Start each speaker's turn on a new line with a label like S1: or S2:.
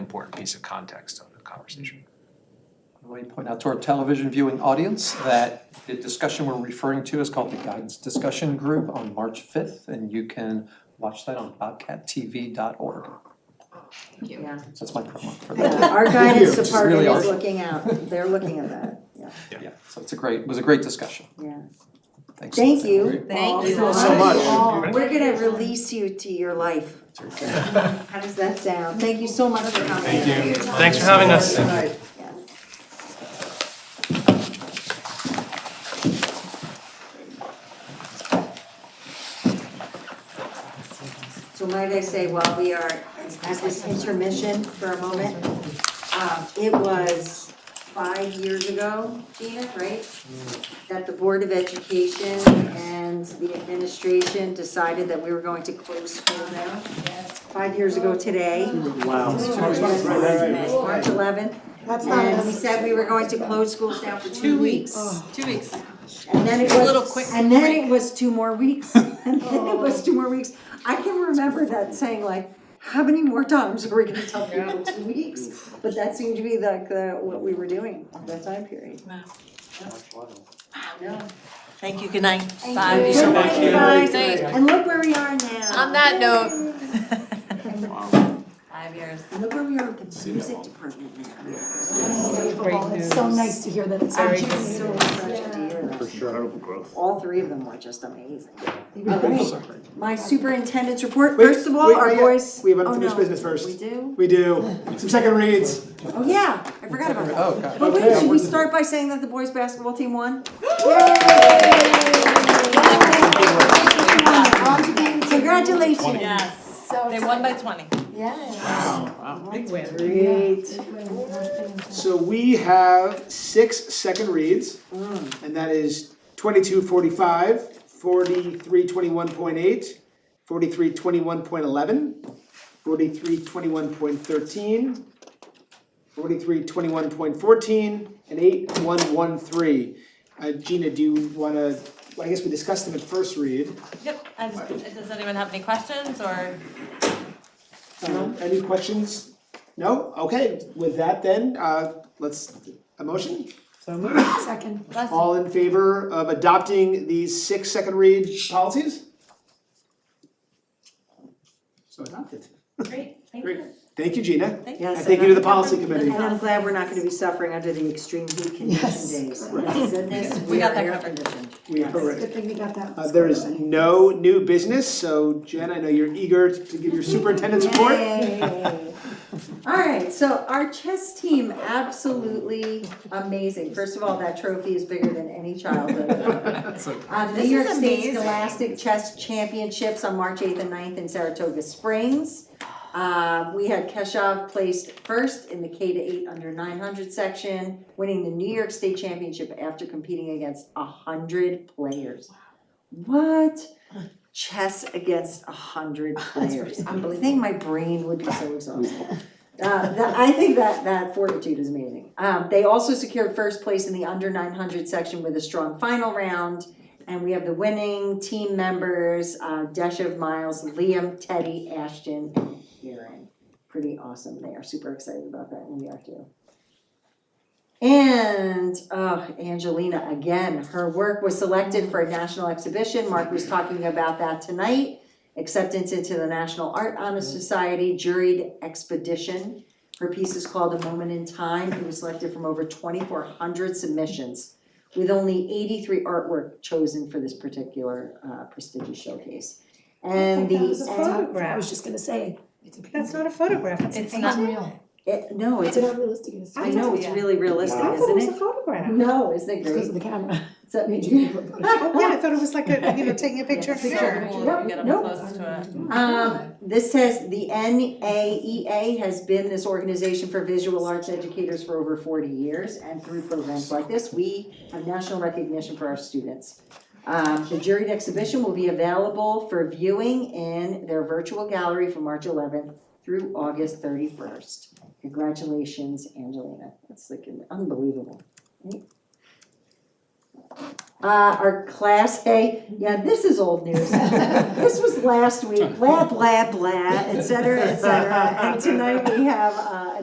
S1: important piece of context of the conversation.
S2: Let me point out to our television viewing audience that the discussion we're referring to is called the Guidance Discussion Group on March fifth, and you can watch that on bobcattv.org.
S3: Yeah,
S2: So That's my promo for that.
S3: Yeah, our guidance
S2: It's
S3: department
S2: really ours.
S3: is looking out, they're looking at that, yeah,
S2: Yeah, so it's a great, it was a great discussion.
S3: yeah.
S2: Thanks.
S3: Thank you.
S4: Thank
S3: all
S4: you
S3: so
S4: so
S3: much.
S4: much.
S3: All. We're gonna release you to your life. How does that sound? Thank you so much for coming. Thank you.
S5: Thanks for having us.
S3: So might I say, while we are at this intermission for a moment, um, it was five years ago, Gina, right? That the Board of Education and the administration decided that we were going to close school now. Five years ago today.
S6: Wow.
S3: March eleventh.
S7: That's not
S3: And we
S7: us.
S3: said we were going to close schools now for two weeks.
S4: Two weeks.
S3: And then it
S4: A little
S3: was,
S4: quick
S3: and then
S4: break. Oh.
S3: it was two more weeks. And then it was two more weeks. I can remember that saying like, how many more times are we gonna tell people two weeks? But that seemed to be like the, what we were doing at that time period.
S4: Thank you, good night.
S7: Thank you.
S3: Good night,
S7: Thank
S3: guys.
S4: Thank you.
S3: And look where we are now.
S4: On that note. Five years.
S3: And Look where we are with the music department now.
S7: Unbelievable. It's so nice to hear that it's
S4: um,
S3: I'm
S7: our
S3: just
S7: junior.
S3: so excited to hear that.
S6: Incredible growth.
S3: All three of them were just amazing.
S6: Alright.
S3: My superintendent's report,
S6: Wait,
S3: first of all,
S6: wait,
S3: our
S6: yeah,
S3: boys.
S6: we have
S3: oh,
S6: unfinished
S3: no,
S6: business first.
S3: We do?
S6: We do, some second reads.
S3: Oh, yeah, I forgot about that.
S2: Oh, God.
S3: But wait,
S6: Okay.
S3: should we start by saying that the boys' basketball team won?
S7: On to being
S3: Congratulations.
S4: Yes,
S7: so
S4: they won by twenty.
S7: Yeah.
S3: Great.
S6: So we have six second reads,
S3: Mm.
S6: and that is 2245, 4321.8, 4321.11, 4321.13, 4321.14, and 8113. Uh, Gina, do you want to, well, I guess we discussed them at first read.
S4: Yep, I just- does anyone have any questions or?
S6: Um, Any questions? No? Okay, with that then, uh, let's, a motion?
S7: Second.
S6: All in favor of adopting these six second read policies? So adopted.
S4: Great, thank
S6: Great. Thank you, Gina.
S4: Thank
S3: Yes.
S6: And thank you to the policy committee.
S3: And I'm glad we're not gonna be suffering under the extreme heat
S7: Yes.
S3: condition days. Thank goodness,
S4: We
S3: we
S4: got
S3: are
S4: that
S3: air
S4: covered.
S3: conditioned.
S6: We are
S7: Good thing we got that.
S6: Uh, there is no new business, so Jen, I know you're eager to give your superintendent's report.
S3: Yay. All right, so our chess team, absolutely amazing. First of all, that trophy is bigger than any childhood. Uh, New
S4: This
S3: York
S4: is
S3: State
S4: amazing.
S3: Scholastic Chess Championships on March eighth and 9th in Saratoga Springs. Uh, we had Keshav placed first in the K to eight under nine hundred section, winning the New York State Championship after competing against hundred players. What? Chess against hundred players. I'm believing my brain would be so exhausted. Uh, that, I think that, that fortitude is amazing. Um, they also secured first place in the under nine hundred section with a strong final round. And we have the winning team members, uh, Deshav Miles, Liam, Teddy, Ashton, and Aaron. Pretty awesome. They are super excited about that and we are too. And, uh, Angelina, again, her work was selected for a national exhibition. Mark was talking about that tonight. Acceptance into the National Art Honor Society juried expedition. Her piece is called A Moment in Time. It was selected from over twenty-four hundred submissions with only eighty-three artwork chosen for this particular uh, prestigious showcase. And the.
S7: That was a photograph. I
S8: photograph.
S7: was just gonna say. It's a
S8: That's not a photograph, it's a
S4: It's
S8: painting.
S4: not-
S7: real.
S3: It, no, it's,
S7: It's not realistic. It's-
S3: I know, it's
S4: Yeah.
S3: really realistic,
S8: I thought it
S3: isn't
S8: was a
S3: it?
S8: photograph.
S3: No, isn't it
S7: It's because of
S3: great?
S7: the camera.
S3: So-
S7: Made you look at it.
S8: Oh, yeah, I thought it was like a, you know, taking a picture of
S4: So
S8: here.
S4: cool if you get up
S3: Nope,
S4: close to it.
S3: Um, this says the NAEA has been this organization for visual arts educators for over forty years, and through programs like this, we have national recognition for our students. Um, the juried exhibition will be available for viewing in their virtual gallery from March eleventh through August thirty-first. Congratulations, Angelina, that's like unbelievable. right? Uh, our class A, yeah, this is old news. This was last week, blah, blah, blah, et cetera, et cetera. And tonight we have, uh,